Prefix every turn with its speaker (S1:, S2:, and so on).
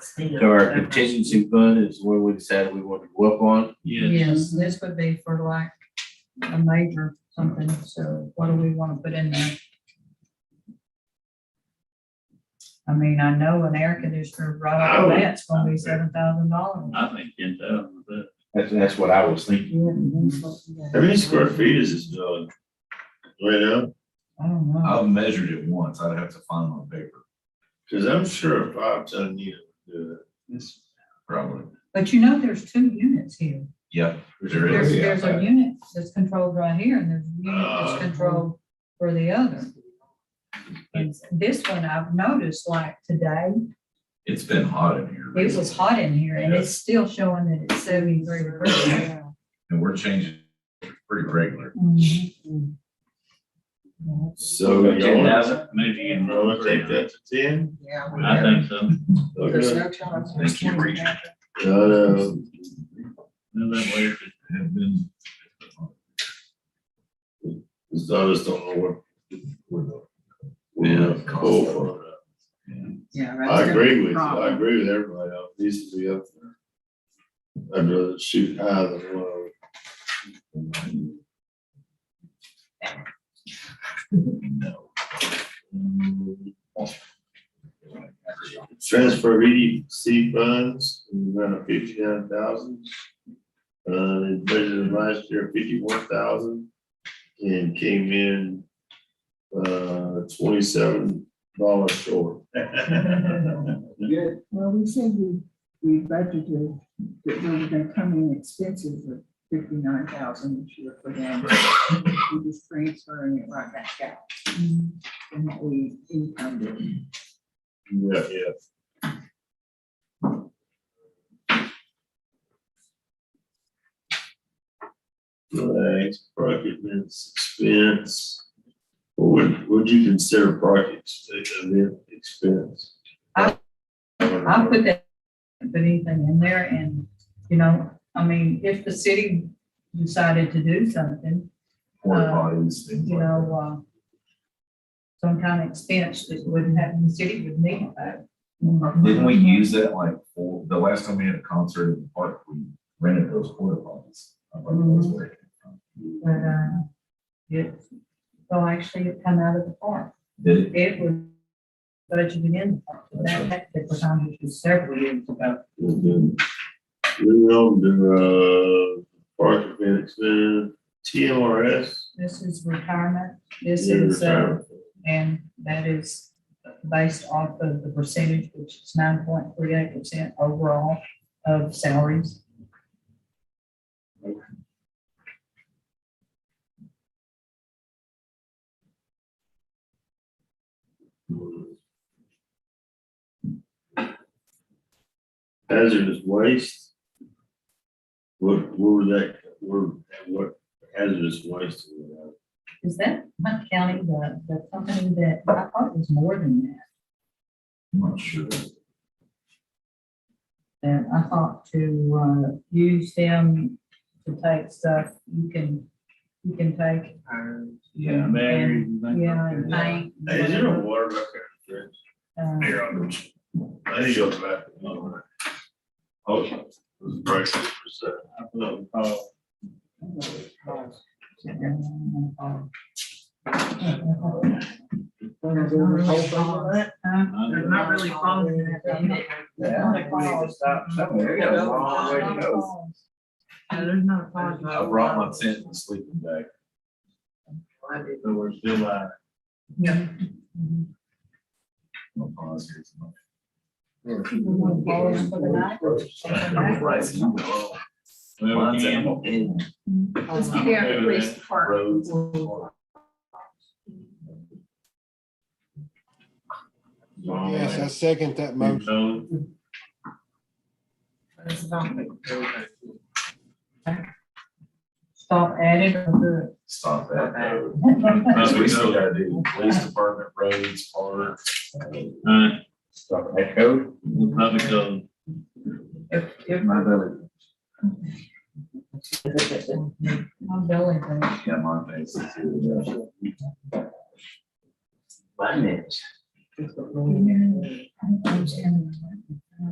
S1: So
S2: So our contingency fund is where we decided we wanted to go up on.
S3: Yeah,
S1: Yes, this would be for like a major something, so what do we want to put in there? I mean, I know an air conditioner right
S3: I
S1: off
S3: would-
S1: the bat's gonna be seven thousand dollars.
S3: I think ten thousand, but
S2: That's, that's what I was thinking.
S4: How many square feet is this building? Right now,
S1: I don't know.
S5: I've measured it once, I'd have to find my paper,
S4: cause I'm sure a five ton unit would do it.
S5: probably,
S1: But you know, there's two units here.
S5: yeah. there
S1: There's,
S5: is.
S1: there's a unit that's controlled right here and there's a unit
S4: Uh.
S1: that's controlled for the other. And this one I've noticed like today,
S5: It's been hot in here.
S1: it was hot in here and it's still showing that it's seventy-three degrees.
S5: And we're changing pretty regular.
S6: Mm-hmm.
S4: So.
S3: ten
S4: y'all-
S3: thousand, maybe
S4: You
S3: in.
S4: wanna take that to ten?
S7: Yeah. we
S3: I think
S7: have-
S3: so.
S7: There's
S4: Okay.
S7: no charge.
S5: Thank you, Regent.
S4: Uh,
S3: No, that way, if
S5: Have been.
S4: so I just don't know what. we're doing.
S5: Yeah.
S4: We're Cool for it.
S7: Yeah.
S4: I
S7: that's
S4: agree with you. I
S7: problem.
S4: agree with everybody. else. It needs to be up there. I'd rather shoot high than low. Transfer EDC funds, in the amount of fifty-nine thousand. Uh, it budgeted last year fifty-one thousand and came in uh, twenty-seven dollars short.
S6: Well, we said we, we budgeted that we were gonna come in expenses of fifty-nine thousand this year for them. We're just transferring it right back out
S1: Mm-hmm.
S6: from what we incomed.
S4: Yeah, yeah. Right, project is expense. What would you consider project ex- event expense?
S1: I- I put that, put anything in there and, you know, I mean, if the city decided to do something,
S5: Porta
S1: Uh,
S5: potties, things
S1: you
S5: like that.
S1: know, uh, some kind of expense that wouldn't happen, the city would need that.
S5: Didn't we use that like, for, the last time we had a concert in the park, we rented those porta potties. I remember
S1: Mm-hmm.
S5: those were-
S1: But, uh, it, well, actually, it come out of the park.
S5: Did it?
S1: It was budgeted in the park, but that, that, that was on it was several years ago.
S4: We know the, uh, project event expense, TMRS.
S1: This is retirement, this is, uh, and that is based off of the percentage, which is nine point three eight percent overall of salaries.
S4: Hazardous waste. What, what would that, where, what hazardous waste? do we have?
S1: Is that Hunt County, the, the company that, I thought it was more than that.
S5: I'm not sure.
S1: And I thought to, uh, use them to take stuff, you can, you can take,
S5: Yeah.
S3: batteries and things like
S1: yeah, and
S3: that.
S1: paint.
S4: Hey, Is there a water back there?
S1: uh,
S4: Here, I'll go. I think it goes back. to the other one. Oh, it was prices per se.
S3: I put a call.
S1: Uh,
S7: There's not really problems in that, but it- I
S5: Yeah.
S7: think we need to
S5: stop
S7: somewhere. We got a long way to no, there's not a problem.
S5: I brought my tent and sleeping bag.
S3: So we're still, uh,
S5: No pause here. so-
S1: People want balls for the night.
S5: No rice, no-
S3: well, we
S5: Mine's
S3: can,
S5: out.
S7: Just be at the police department.
S4: Roads.
S8: Yes, I second that motion.
S3: so,
S7: It's not like-
S1: Stop adding or
S5: Stop that.
S1: good.
S5: Because we still gotta do police department, roads, parks.
S3: uh,
S2: Stuff that code.
S3: we'll probably go,
S1: If, if
S5: My belly.
S1: my belly, goes,
S5: Yeah, my uh, face. is here.
S1: I don't understand.